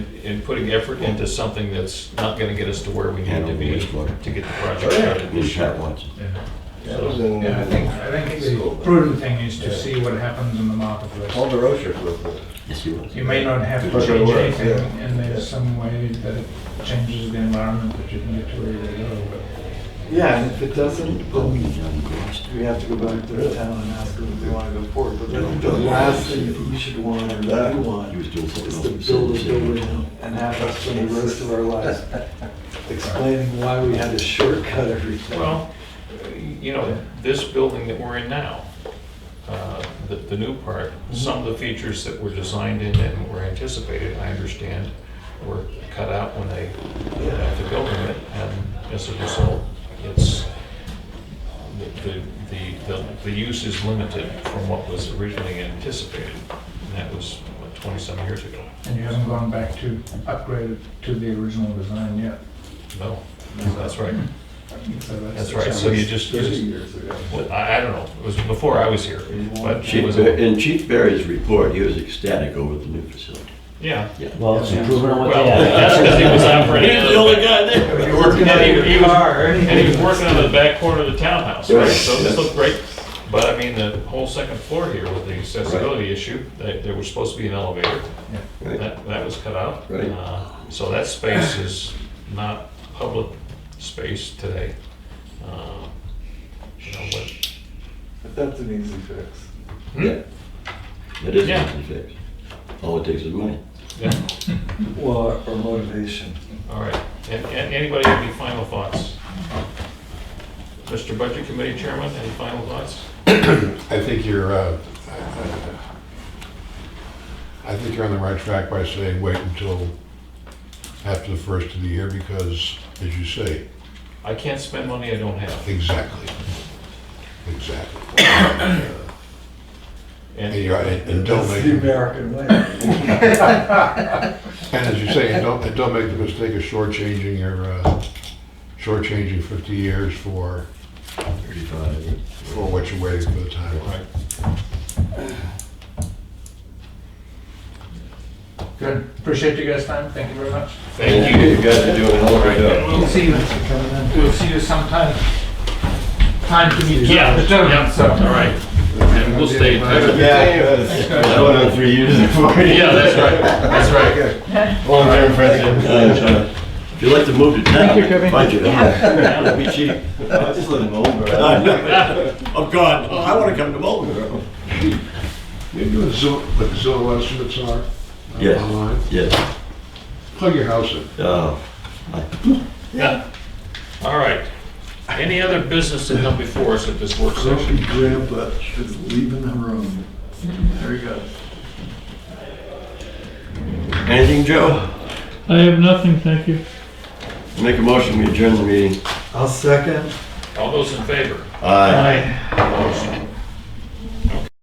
in putting effort into something that's not gonna get us to where we need to be to get the project started We this shot year. once. Yeah, That was in Yeah, I think, uh, I think the prudent thing is to see what happens in the marketplace. Ponderosa for a bit. Yes, he was. You may not have to That's what it change was, anything, yeah. and there's some way that it changes the environment that you can get to where you go, but Yeah, and if it doesn't, Oh, then he's ungrossed. we have to go back to the town and ask them if they want to go forward. But I think the last thing that you should want or that you He want was doing is something to else. build a building and have us spend the rest of our lives explaining why we had to shortcut everything. Well, you know, this building that we're in now, uh, the, the new part, some of the features that were designed in and were anticipated, I understand, were cut out when they had to build it, and as a result, it's, the, the- the, the, the use is limited from what was originally anticipated, and that was, what, twenty-some years ago? and you haven't gone back to upgrade it to the original design yet. No, that's right, So that's the right, so you challenge. just, you Thirty just- years ago. well, I, I don't know, it was before I was here, but it Chief, was. Ber- in Chief Berry's report, he was ecstatic over the new facility. Yeah. Well, it's improvement on what Well, they that's had. because he was out for any He's the only guy there. You're working And on he- he your was- car. And he was working on the back corner of the townhouse, right? Right. So this looked great. But I mean, the whole second floor here with the accessibility issue, they- there was supposed to be an elevator. Right. That, that was cut out. Right. Uh, So that space is not public space today. Uh, You know, but, But that's an easy fix. Yeah. That is Yeah. easy to fix. All it takes is money. yeah, Well, or motivation. all right. And, and anybody have any final thoughts? Mr. Budget Committee Chairman, any final thoughts? I think you're, uh, I think you're on the right track by saying wait until after the first of the year because, as you say, I can't spend money I don't have. exactly, exactly. And- And you're- and- and don't make, That's the and American way. as you say, and don't, and don't make the mistake of shortchanging your, uh, shortchanging 50 years for, Thirty-five. for what you're waiting for the timeline. Right. Good, appreciate you guys' time, thank you very much. Thank you. guys are doing a hell of a And we'll see you, we'll see you sometime, time to meet. Yeah, yeah, So- all right. And we'll stay in touch. Yeah. I went on three years before. Yeah, that's right, that's right. Long-term president. Uh, If you'd like to move to town, you, Kevin. budget, that'd be cheap. I just live in I Oldborough. know. Oh, God, oh, I want to come to Marlboro. Maybe do a Zillow, what the Zillow estimates are uh, Yes. online. Yes. Plug your house in. Oh, All right. Any other business that come before us at this work session? Grumpy grandpa is leaving the room. There you go. anything, Joe? I have nothing, thank you. Make a motion, we adjourn the meeting. I'll second. All those in favor? Aye. Motion